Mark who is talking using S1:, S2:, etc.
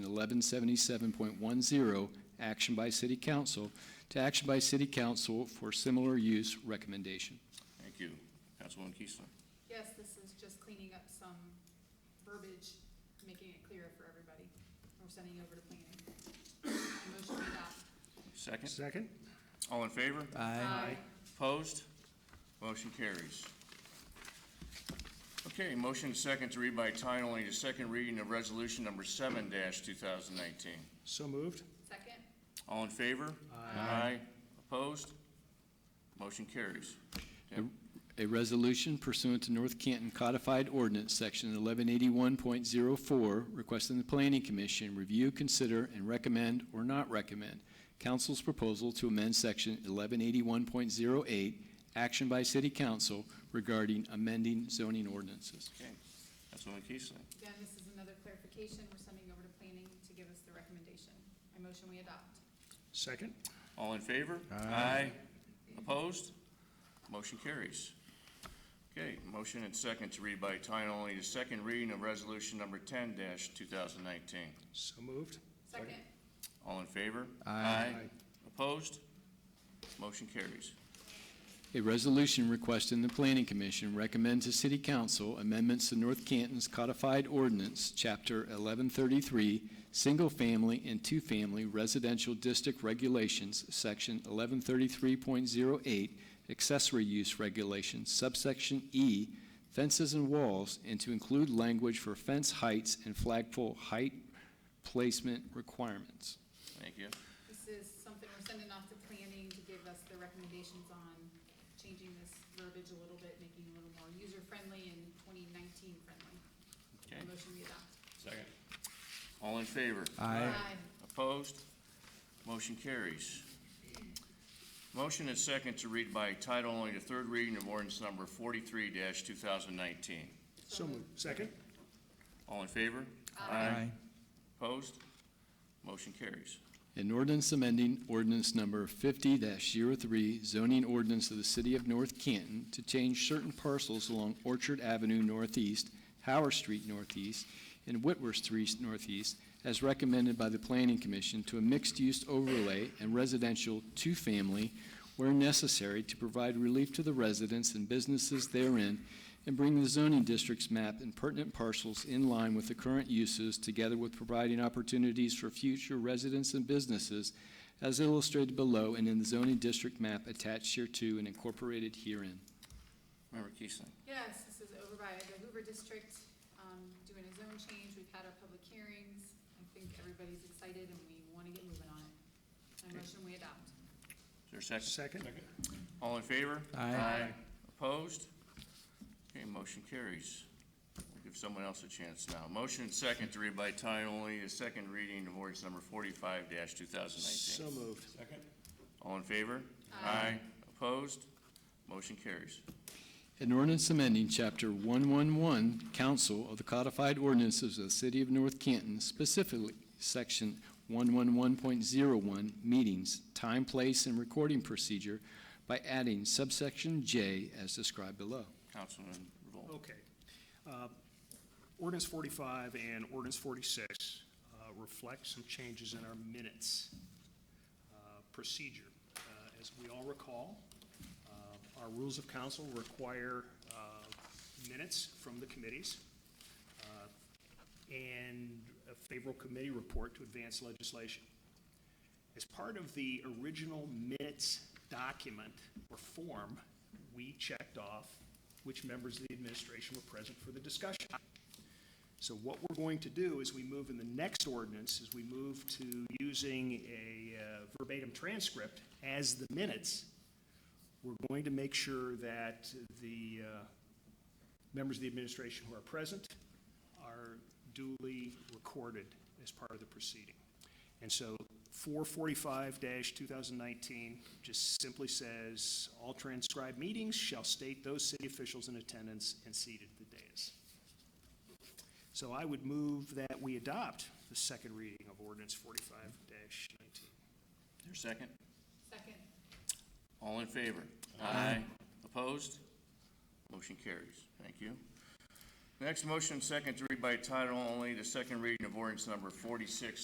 S1: eleven seventy-seven point one zero, action by city council, to action by city council for similar use recommendation.
S2: Thank you. Councilwoman Keesler.
S3: Yes, this is just cleaning up some verbiage, making it clearer for everybody. We're sending it over to planning. Motion to adopt.
S2: Second.
S4: Second?
S2: All in favor?
S3: Aye.
S2: Opposed? Motion carries. Okay, motion and second to read by title only the second reading of resolution number seven two thousand nineteen.
S4: So moved?
S3: Second?
S2: All in favor? Aye. Opposed? Motion carries.
S1: A resolution pursuant to North Canton Codified Ordinance, Section 1181.04, requesting the Planning Commission review, consider, and recommend or not recommend council's proposal to amend Section 1181.08, action by city council regarding amending zoning ordinances.
S2: Okay, Councilwoman Keesler.
S3: Again, this is another clarification. We're sending over to planning to give us the recommendation. I motion we adopt.
S4: Second?
S2: All in favor? Opposed? Motion carries. Okay, motion and second to read by title only the second reading of resolution number ten two thousand nineteen.
S4: So moved?
S3: Second?
S2: All in favor?
S4: Aye.
S2: Opposed? Motion carries.
S1: A resolution requesting the Planning Commission recommend to City Council amendments to North Canton's codified ordinance, Chapter 1133, Single Family and Two Family Residential District Regulations, Section 1133.08, Accessory Use Regulations, subsection E, Fences and Walls, and to include language for fence heights and flagpole height placement requirements.
S2: Thank you.
S3: This is something we're sending off to planning to give us the recommendations on changing this verbiage a little bit, making it a little more user-friendly and twenty nineteen friendly.
S2: Okay,
S3: Motion we adopt.
S2: second. All in favor?
S3: Aye.
S2: Opposed? Motion carries. Motion and second to read by title only the third reading of ordinance number forty-three two thousand nineteen.
S4: So moved? Second?
S2: All in favor? Aye. Opposed? Motion carries.
S1: An ordinance amending ordinance number fifty 3 zoning ordinance of the city of North Canton to change certain parcels along Orchard Avenue Northeast, Howard Street Northeast, and Whitworth Street Northeast, as recommended by the Planning Commission to a mixed-use overlay and residential two-family where necessary to provide relief to the residents and businesses therein and bring the zoning district's map and pertinent parcels in line with the current uses, together with providing opportunities for future residents and businesses, as illustrated below and in the zoning district map attached hereto and incorporated herein.
S2: Member Keesling.
S3: Yes, this is over by the Hoover District, um, doing a zone change. We've had our public hearings. I think everybody's excited and we want to get moving on it. I motion we adopt.
S2: Is there a second?
S4: Second?
S2: All in favor?
S5: Aye.
S2: Opposed? Okay, motion carries. We'll Give someone else a chance now. Motion and second to read by title only the second reading of ordinance number forty-five two thousand
S4: So
S2: nineteen.
S4: moved?
S2: All in favor? Aye. Opposed? Motion carries.
S1: An ordinance amending Chapter 111, Council of the Codified Ordinances of the City of North Canton, specifically Section 111.01, Meetings, Time, Place, and Recording Procedure, by adding subsection J as described below.
S2: Councilman Revolt.
S4: Okay. Uh, Ordinance forty-five and ordinance forty-six uh, reflect some changes in our minutes uh, procedure. Uh, As we all recall, uh, our rules of council require uh, minutes from the committees uh, and a favorable committee report to advance legislation. As part of the original minutes document or form, we checked off which members of the administration were present for the discussion. So what we're going to do is we move in the next ordinance, is we move to using a uh, verbatim transcript as the minutes. We're going to make sure that the uh, members of the administration who are present are duly recorded as part of the proceeding. And so 445-2019 just simply says, "All transcribed meetings shall state those city officials in attendance and seated at the dais." So I would move that we adopt the second reading of ordinance 45-19.
S2: Is there a second?
S3: Second.
S2: All in favor? Aye. Opposed? Motion carries. Thank you. Next motion, second to read by title only, the second reading of ordinance number forty-six